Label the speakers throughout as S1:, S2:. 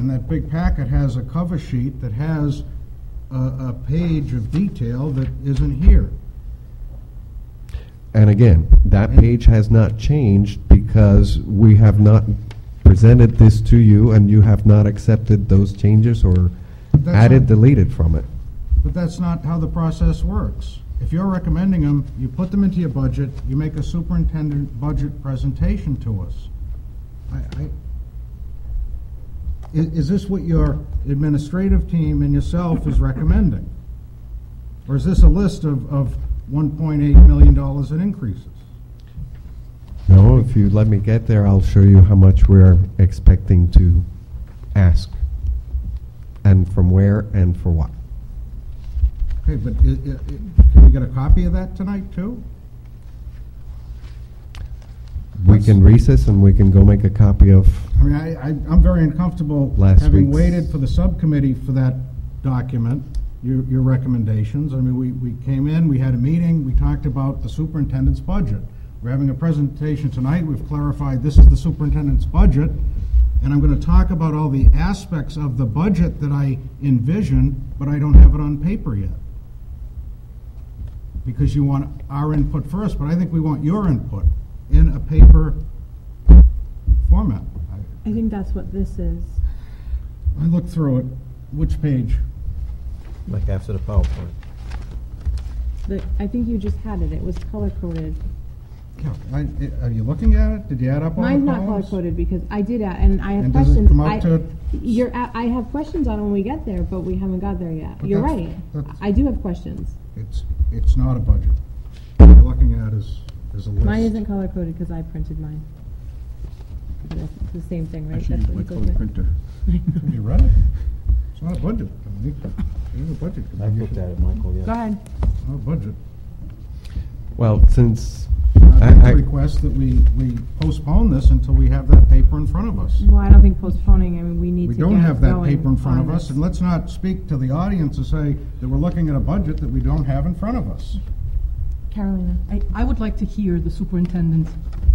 S1: and that big packet has a cover sheet that has a, a page of detail that isn't here.
S2: And again, that page has not changed because we have not presented this to you and you have not accepted those changes or
S1: That's
S2: added,
S1: not-
S2: deleted from it.
S1: But that's not how the process works. If you're recommending them, you put them into your budget, you make a superintendent budget presentation to us. I, I, i- is this what your administrative team and yourself is recommending? Or is this a list of, of one point eight million dollars in increases?
S2: No, if you let me get there, I'll show you how much we're expecting to ask and from where and for what.
S1: Okay, but i- i- i- can we get a copy of that tonight too?
S2: We can recess and we can go make a copy of,
S1: I mean, I, I, I'm very uncomfortable
S2: Last
S1: having
S2: week's-
S1: waited for the subcommittee for that document, your, your recommendations. I mean, we, we came in, we had a meeting, we talked about the superintendent's budget. We're having a presentation tonight, we've clarified this is the superintendent's budget, and I'm gonna talk about all the aspects of the budget that I envision, but I don't have it on paper yet. Because you want our input first, but I think we want your input in a paper format. I-
S3: I think that's what this is.
S1: I looked through it. Which page?
S4: Like after the PowerPoint.
S3: The, I think you just had it. It was color coded.
S1: Yeah, I- i- Are you looking at it? Did you add up all the
S3: Mine's
S1: columns?
S3: not color coded because I did add, and I have
S1: And does it
S3: questions.
S1: come up
S3: I,
S1: to-
S3: You're, a- I have questions on when we get there, but we haven't got there yet.
S1: But
S3: You're
S1: that's-
S3: right.
S1: that's-
S3: I do have questions.
S1: It's, it's not a budget. What you're looking at is, is a list.
S3: Mine isn't color coded because I printed mine. But It's the same thing, right? That's what you go with.
S1: Have you read it? It's not a budget, Dominique. It is a budget.
S4: I looked at it, Michael,
S3: Go
S4: yeah.
S3: ahead.
S1: It's not a budget.
S2: well, since
S1: I
S2: I- I-
S1: would request that we, we postpone this until we have that paper in front of us.
S3: Well, I don't think postponing, I mean, we need
S1: We
S3: to get
S1: don't have that
S3: going
S1: paper in front
S3: on
S1: of us,
S3: this.
S1: and let's not speak to the audience and say that we're looking at a budget that we don't have in front of us.
S3: Carolina.
S5: I, I would like to hear the superintendent's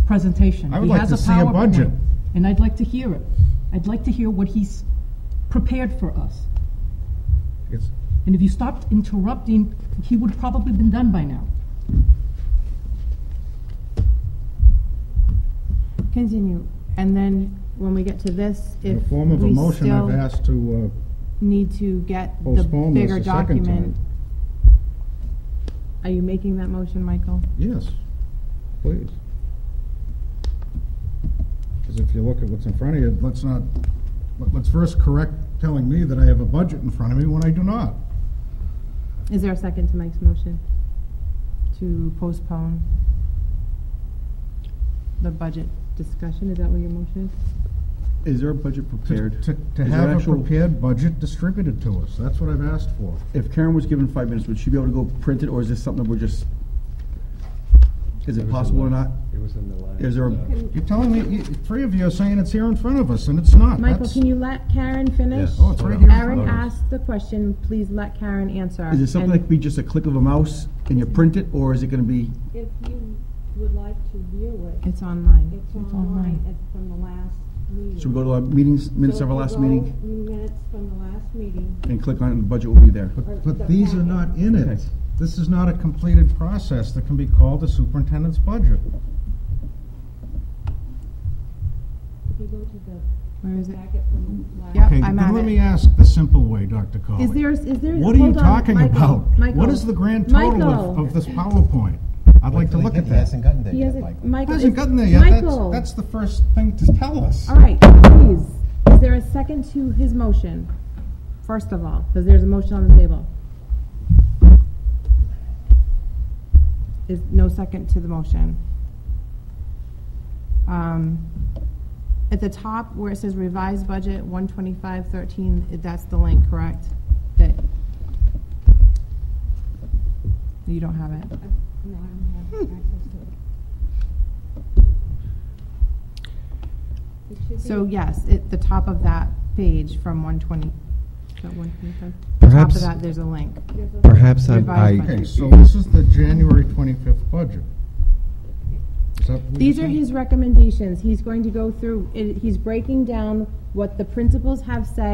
S5: presentation.
S1: I would
S5: He
S1: like
S5: has
S1: to see a
S5: PowerPoint,
S1: budget.
S5: And I'd like to hear it. I'd like to hear what he's prepared for us.
S1: It's,
S5: And if you stopped interrupting, he would probably been done by now.
S3: Continue. And then when we get to this,
S1: in
S3: if
S1: the form of a
S3: we
S1: motion, I've
S3: still-
S1: asked to, uh,
S3: need to get the
S1: postpone this
S3: bigger
S1: a second time.
S3: document. Are you making that motion, Michael?
S1: Yes, please. Because if you look at what's in front of you, let's not, let- let's first correct telling me that I have a budget in front of me when I do not.
S3: Is there a second to Mike's motion? To postpone the budget discussion, is that what your motion is?
S6: Is there a budget
S1: To-
S6: prepared?
S1: To, to
S6: Is there
S1: have a
S6: actual-
S1: prepared budget distributed to us, that's what I've asked for.
S6: If Karen was given five minutes, would she be able to go print it, or is this something that we're just, is it possible or not?
S4: It was in the last.
S6: Is there, a-
S1: You're telling me, you- three of you are saying it's here in front of us, and it's not.
S3: Michael,
S1: That's-
S3: can you let Karen finish?
S4: Yes.
S1: Oh, it's right here in front
S3: Aaron
S1: of us.
S3: asked the question, please let Karen answer.
S6: is it something that
S3: And
S6: could be just a click of a mouse and you print it, or is it gonna be,
S7: If you would like to view it,
S3: It's online.
S7: it's
S5: online.
S7: online, it's from the last meeting.
S6: should we go to our meetings, minutes of our last meeting,
S7: Minutes from the last meeting.
S6: and click on it, and the budget will be there?
S7: or
S1: But, but
S7: the
S1: these are
S7: packet.
S1: not in it.
S6: Okay.
S1: This is not a completed process that can be called a superintendent's budget.
S7: If you go to the
S3: Where is it?
S7: packet from the last.
S3: Yep.
S1: Okay,
S3: I'm
S1: then
S3: at
S1: let
S3: it.
S1: me ask the simple way, Dr. Colley.
S3: Is there, is there?
S1: Oh, What are you
S3: hold on,
S1: talking
S3: Michael,
S1: about?
S3: Michael.
S1: What is the grand total of,
S3: Michael.
S1: of this PowerPoint? I'd like to look at that. It
S4: gotten there
S3: He hasn't, Michael.
S1: hasn't
S3: is-
S1: gotten there yet. That's,
S3: Michael.
S1: that's the first thing to tell us.
S3: All right, please, is there a second to his motion? First of all, because there's a motion on the table. Is no second to the motion. Um, At the top where it says revised budget, one twenty-five thirteen, that's the link, correct? That you don't have it.
S7: Uh, No, I don't have
S6: Hmm.
S7: access to it. It should be-
S3: So yes, at the top of that page from one twenty, is that one twenty-five? Top
S2: Perhaps-
S3: of that, there's a link.
S7: there's a-
S2: perhaps I,
S3: Revised
S2: I
S3: budget.
S1: Okay, so this is the January 25th budget. Is that what
S3: These
S1: you're
S3: are
S1: saying?
S3: his recommendations. He's going to go through, it- he's breaking down what the principals have said